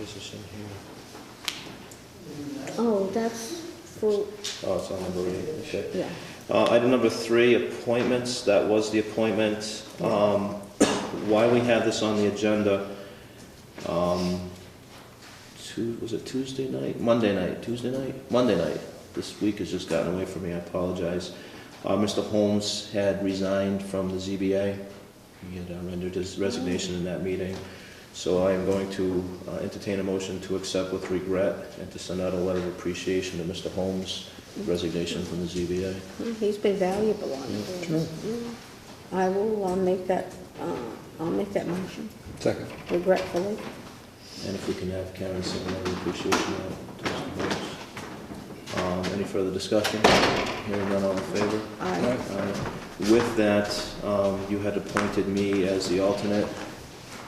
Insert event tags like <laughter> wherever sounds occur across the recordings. is this in here? Oh, that's for, Oh, it's on number eight, okay. yeah. Uh, Item number three, appointments, that was the appointment. Um, Why we have this on the agenda, um, Tu- was it Tuesday night? Monday night, Tuesday night? Monday night. This week has just gotten away from me, I apologize. Uh, Mr. Holmes had resigned from the ZBA. He had uh, rendered his resignation in that meeting. So I am going to uh, entertain a motion to accept with regret and to send out a letter of appreciation to Mr. Holmes' resignation from the ZBA. Well, He's been valuable on it. I will, I'll make that, uh, I'll make that motion Second. regretfully. And if we can have Karen send a letter of appreciation out to Mr. Holmes. Um, Any further discussion? Hearing none, all in favor? I, Aye. With that, um, you had appointed me as the alternate.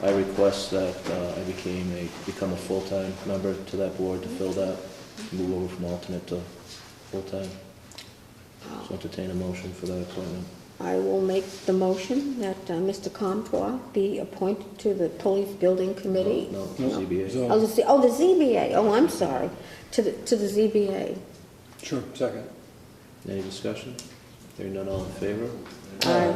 I request that uh, I became a, become a full-time member to that board to fill that, move over from alternate to full-time. So entertain a motion for that appointment. I will make the motion that uh, Mr. Comtois be appointed to the Police Building Committee. No, No. ZBA. So- Oh, the, Z- oh, the ZBA, oh, I'm sorry, to the, to the ZBA. Sure, second. Any discussion? Hearing none, all in favor? I,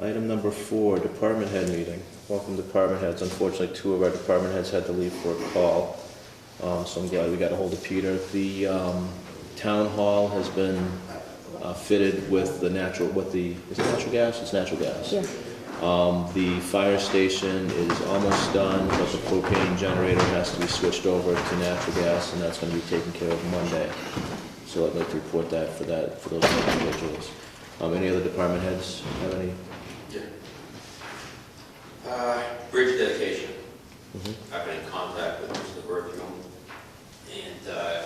Item number four, department head meeting. Welcome department heads. Unfortunately, two of our department heads had to leave for a call, uh, so I'm glad we got a hold of Peter. The um, town hall has been uh, fitted with the natural, with the, is it natural gas? It's natural gas. yeah, Um, The fire station is almost done, but the propane generator has to be switched over to natural gas, and that's gonna be taken care of Monday. So I'd like to report that for that, for those individuals. Um, Any other department heads have any Yeah. Uh, Bridge dedication. Mhm. Mm-hmm. I've been in contact with Mr. Bertram, and uh,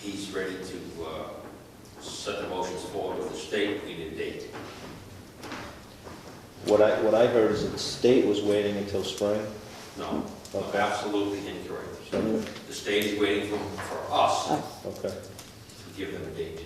he's ready to uh, set the motions forward with the state, we need a date. What I, what I heard is that the state was waiting until spring. No, no, Okay. absolutely incorrect. Mhm. Mm-hmm. The state is waiting for for us to us. Okay. give them a date.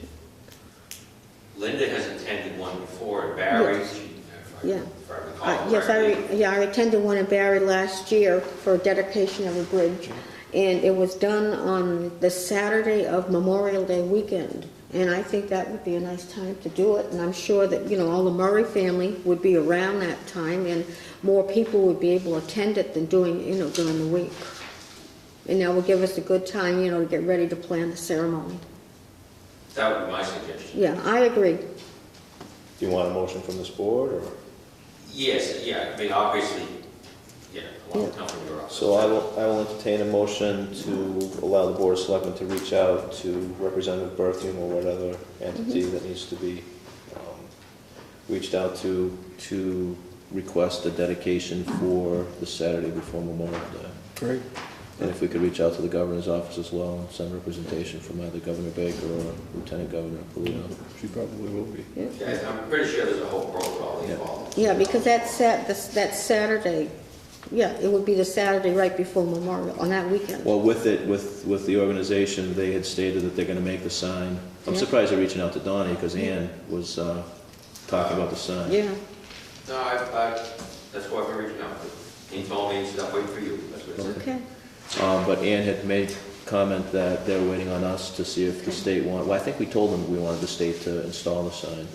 Linda has attended one before at Barry's, she- if I- Yeah. if I Uh, recall Yes, I, correctly. re- yeah, I attended one in Barry last year for a dedication of a bridge, and it was done on the Saturday of Memorial Day weekend, and I think that would be a nice time to do it, and I'm sure that, you know, all the Murray family would be around that time, and more people would be able to attend it than doing, you know, during the week. And that would give us a good time, you know, to get ready to plan the ceremony. That would be my suggestion. Yeah, I agree. Do you want a motion from this board, or? Yes, yeah, I mean, obviously, yeah, a long time from your office. So I will, I will entertain a motion to allow the board of selectmen to reach out to Representative Berthium or whatever entity that needs to be, um, reached out to, to request a dedication for the Saturday before Memorial Day. Great. And if we could reach out to the governor's office as well, and send representation from either Governor Baker or Lieutenant Governor Polino. She probably will be. Yeah, I'm pretty sure there's a whole protocol Yeah. involved. Yeah, because that's Sat, that's- that's Saturday, yeah, it would be the Saturday right before Memorial, on that weekend. Well, with it, with, with the organization, they had stated that they're gonna make the sign. I'm Yeah. surprised they're reaching out to Donnie, because Ann was, uh, talking about the sign. Yeah, No, I, I, that's why I'm reaching out. He told me, he said, I'm waiting for you. That's what it said. okay, Um, but Ann had made comment that they're waiting on us to see if the state want, well, I think we told them we wanted the state to install the sign.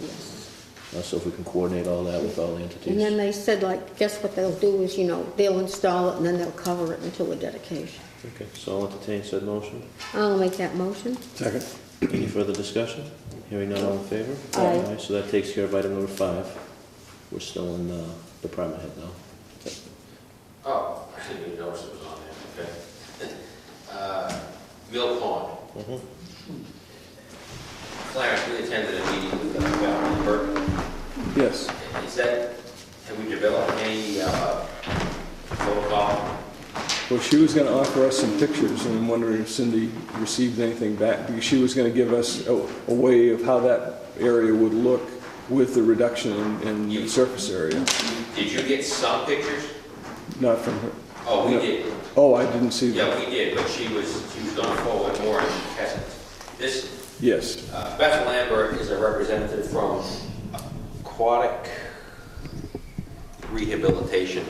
Uh, So if we can coordinate all that with all the and then entities. they said, like, guess what they'll do is, you know, they'll install it and then they'll cover it until the dedication. Okay, so I'll entertain said motion. I'll make that motion. Second. Any further discussion? Hearing none, all in favor? Aye. All right, So that takes care of item number five. We're still in, uh, department head now. Oh, <laughs> I didn't even notice it was on there, okay. <laughs> Uh, Mill Pond. Mhm. Clarence, we attended a meeting with uh, Governor Burton. Yes. Is that, have we developed any, uh, protocol? Well, she was going to offer us some pictures, and I'm wondering if Cindy received anything back, because she was going to give us a, a way of how that area would look with the reduction in, in the surface area, Did you get some pictures? not from her. Oh, we No. did. Oh, I didn't see that. Yeah, we did, but she was, she was gonna forward more and she hasn't. This, Yes, uh, Beth Lambert is a representative from Aquatic Rehabilitation.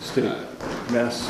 state, Uh, mass